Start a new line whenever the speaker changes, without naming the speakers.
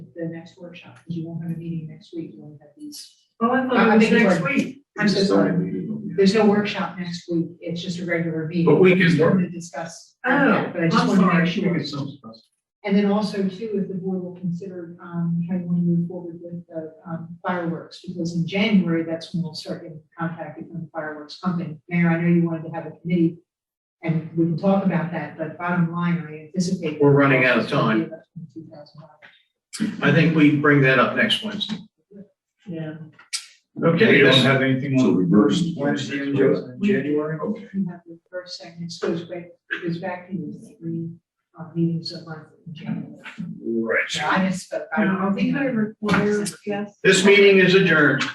the next workshop, because you won't have a meeting next week, you won't have these.
Oh, I
I
thought it was
think it's
next week.
I'm so sorry,
sorry.
there's no workshop next week, it's just a regular meeting.
But we can work.
To discuss.
Oh,
Yeah, But I just
I'm
wanted to
sorry.
make sure.
It's some stuff.
And then also too, if the board will consider, um, how you want to move forward with the um, fireworks, because in January, that's when we'll start getting contacted from the fireworks company. Mayor, I know you wanted to have a committee, and we can talk about that, but bottom line, I anticipate.
We're running out of time. I think we bring that up next Wednesday.
Yeah.
Okay,
We don't
that's-
have anything
So
on.
reverse.
Wednesday in Jan- January?
okay.
You have the first, second, it goes back, it goes back to the three uh, meetings a month in January.
Right.
I misspoke. I
I
don't know.
think I require guests.
This meeting is adjourned.